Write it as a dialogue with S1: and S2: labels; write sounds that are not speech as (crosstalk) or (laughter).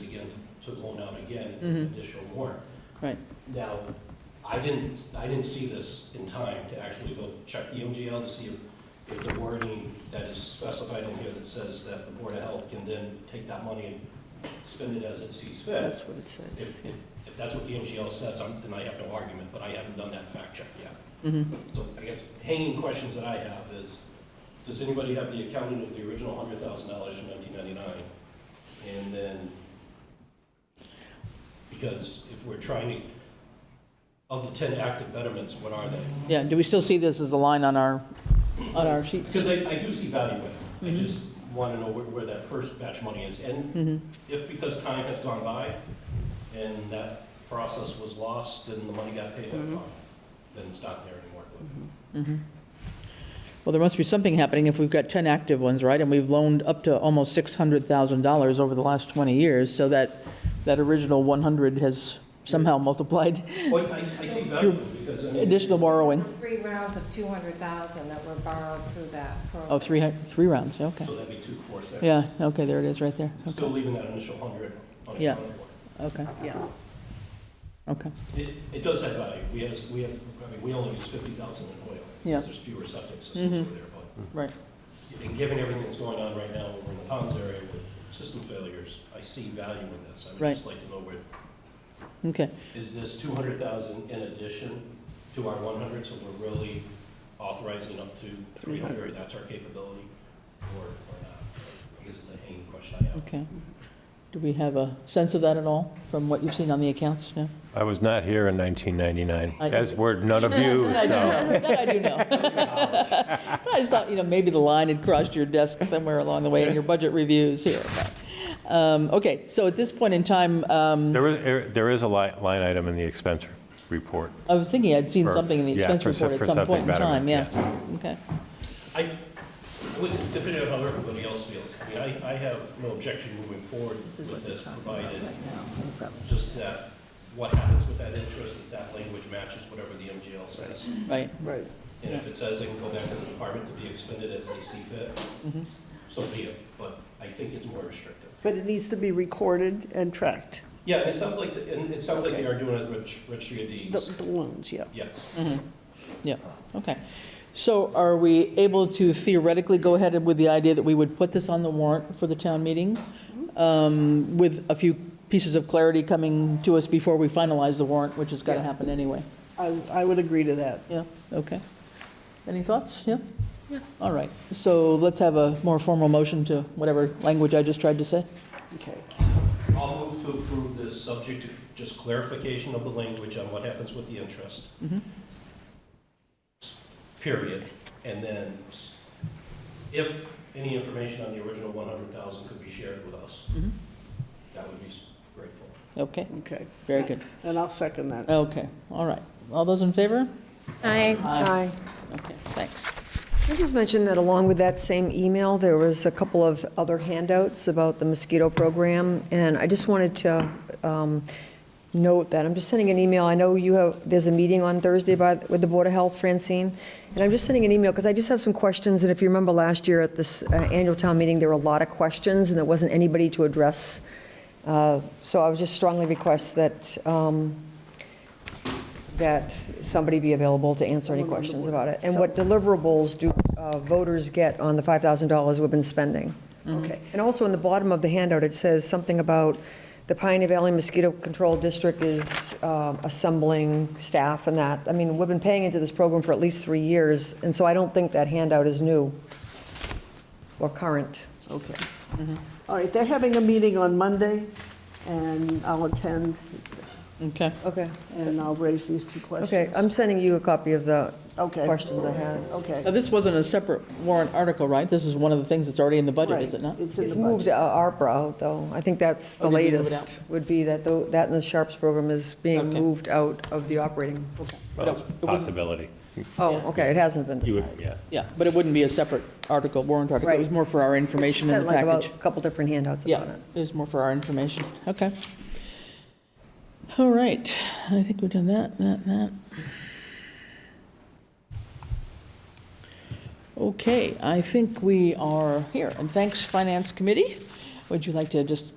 S1: to going out again, an additional warrant.
S2: Right.
S1: Now, I didn't, I didn't see this in time to actually go check the MGL to see if, if the wording that is specified in here that says that the Board of Health can then take that money and spend it as it sees fit.
S2: That's what it says.
S1: If, if if that's what the MGL says, I'm- then I have no argument, but I haven't done that fact check yet.
S2: Mhm.
S1: So I guess hanging questions that I have is, does anybody have the accounting of the original hundred thousand dollars from nineteen ninety-nine? And then, because if we're trying to, of the ten active betterments, what are they?
S2: Yeah, do we still see this as a line on our, on our sheets?
S1: Because I, I do see value in it, I just want to know where, where that first batch money is. And
S2: Mm-hmm,
S1: if because time has gone by and that process was lost and the money got paid, then fine, then it's not there anymore.
S2: mm-hmm. Well, there must be something happening if we've got 10 active ones, right? And we've loaned up to almost $600,000 over the last 20 years, so that, that original 100 has somehow multiplied (laughs)
S1: Well, I, I see value in it because I mean.
S2: additional borrowing
S3: Three rounds of 200,000 that were borrowed through that program.
S2: of Oh, three, hun- three rounds, yeah, okay.
S1: So that'd be two, four, six.
S2: Yeah, okay, there it is, right there. Okay,
S1: Still leaving that initial hundred on
S2: Yeah.
S1: accounted for.
S2: Okay,
S3: Yeah.
S2: okay,
S1: It, it does have value. We have, we have, I mean, we only use fifty thousand in oil.
S2: Yeah. Mm-hmm.
S1: Because there's fewer septic systems over there, but,
S2: right.
S1: and given everything that's going on right now over in the ponds area with system failures, I see value in this. I would
S2: Right.
S1: just like to know where,
S2: Okay,
S1: is this two hundred thousand in addition to our one hundred? So we're really authorizing up to three hundred, that's our capability, or, or not? I guess it's a hanging question I have.
S2: okay. Do we have a sense of that at all from what you've seen on the accounts now?
S4: I was not here in 1999,
S2: I-
S4: as were none of you,
S2: That (laughs) I do
S4: so.
S2: know, that I do know. But I just thought, you know, maybe the line had crossed your desk somewhere along the way in your budget reviews here. but, um, Okay, so at this point in time, um,
S4: There is, er, there is a li- line item in the expense report.
S2: I was thinking I'd seen
S4: for-
S2: something in the
S4: yeah,
S2: expense
S4: for se-
S2: report at
S4: for
S2: some
S4: septic
S2: point in
S4: betterment,
S2: time, yeah.
S4: yes.
S2: Okay,
S1: I, it was depending on how everybody else feels, I mean, I, I have no objection moving forward with this, provided just that what happens with that interest, that that language matches whatever the MGL says.
S2: right,
S5: Right.
S1: And if it says they can go back to the department to be expended as they see fit,
S5: Mm-hmm.
S1: so be it, but I think it's more restrictive.
S5: But it needs to be recorded and tracked,
S1: Yeah, it sounds like, the- and it sounds like they
S5: Okay.
S1: are doing it with registry of
S5: the
S1: deeds,
S5: the loans, yeah.
S1: yes.
S2: yeah, okay. So are we able to theoretically go ahead with the idea that we would put this on the warrant for the town meeting? um, With a few pieces of clarity coming to us before we finalize the warrant, which has got to
S5: Yeah.
S2: happen anyway?
S5: I, I would agree to that.
S2: Yeah, okay. Any thoughts? Yeah? Yeah. All right, so let's have a more formal motion to whatever language I just tried to say.
S5: Okay.
S1: I'll move to approve this subject to just clarification of the language on what happens with the interest.
S2: Mm-hmm.
S1: Period. And then s- if any information on the original 100,000 could be shared with us,
S2: Mhm.
S1: that would be s- grateful.
S2: Okay,
S5: Okay,
S2: very good.
S5: and I'll second that.
S2: Okay, all right. All those in favor?
S6: Aye.
S2: Aye. Okay, thanks.
S7: Can I just mention that along with that same email, there was a couple of other handouts about the mosquito program, and I just wanted to um, note that, I'm just sending an email, I know you have, there's a meeting on Thursday by, with the Board of Health, Francine, and I'm just sending an email, because I just have some questions, and if you remember last year at this uh, annual town meeting, there were a lot of questions, and there wasn't anybody to address, Uh, so I would just strongly request that, um, that somebody be available to answer any questions about it. And what deliverables do uh, voters get on the $5,000 we've been spending?
S5: Mm-hmm.
S7: Okay. And also, in the bottom of the handout, it says something about the Pioneer Valley Mosquito Control District is um, assembling staff and that. I mean, we've been paying into this program for at least three years, and so I don't think that handout is new or current.
S5: Okay. All right, they're having a meeting on Monday, and I'll attend,
S2: Okay,
S7: Okay.
S5: and I'll raise these two questions.
S7: Okay, I'm sending you a copy of the
S5: Okay.
S7: questions I had.
S2: now
S5: Okay.
S2: this wasn't a separate warrant article, right? This is one of the things that's already in the budget, is
S5: Right,
S2: it not?
S5: It's in
S7: It's
S5: the
S7: moved
S5: budget.
S7: to uh, ARPA, though. I think that's the
S2: Oh, did you move it
S7: latest, would be that, tho- that and the Sharps program is being
S2: Okay.
S7: moved out of the operating.
S2: But it-
S4: Well,
S2: it wouldn't-
S4: Possibility.
S7: Oh, okay, it hasn't been
S4: You would,
S7: decided.
S4: yeah.
S2: Yeah, but it wouldn't be a separate article, warrant article. It was
S7: Right.
S2: more for our information in
S7: Sent
S2: the
S7: like about
S2: package.
S7: a couple different handouts
S2: Yeah,
S7: about it.
S2: it was more for our information. Okay. All right, I think we've done that, that, and that. Okay, I think we are here, and thanks, Finance Committee. Would you like to just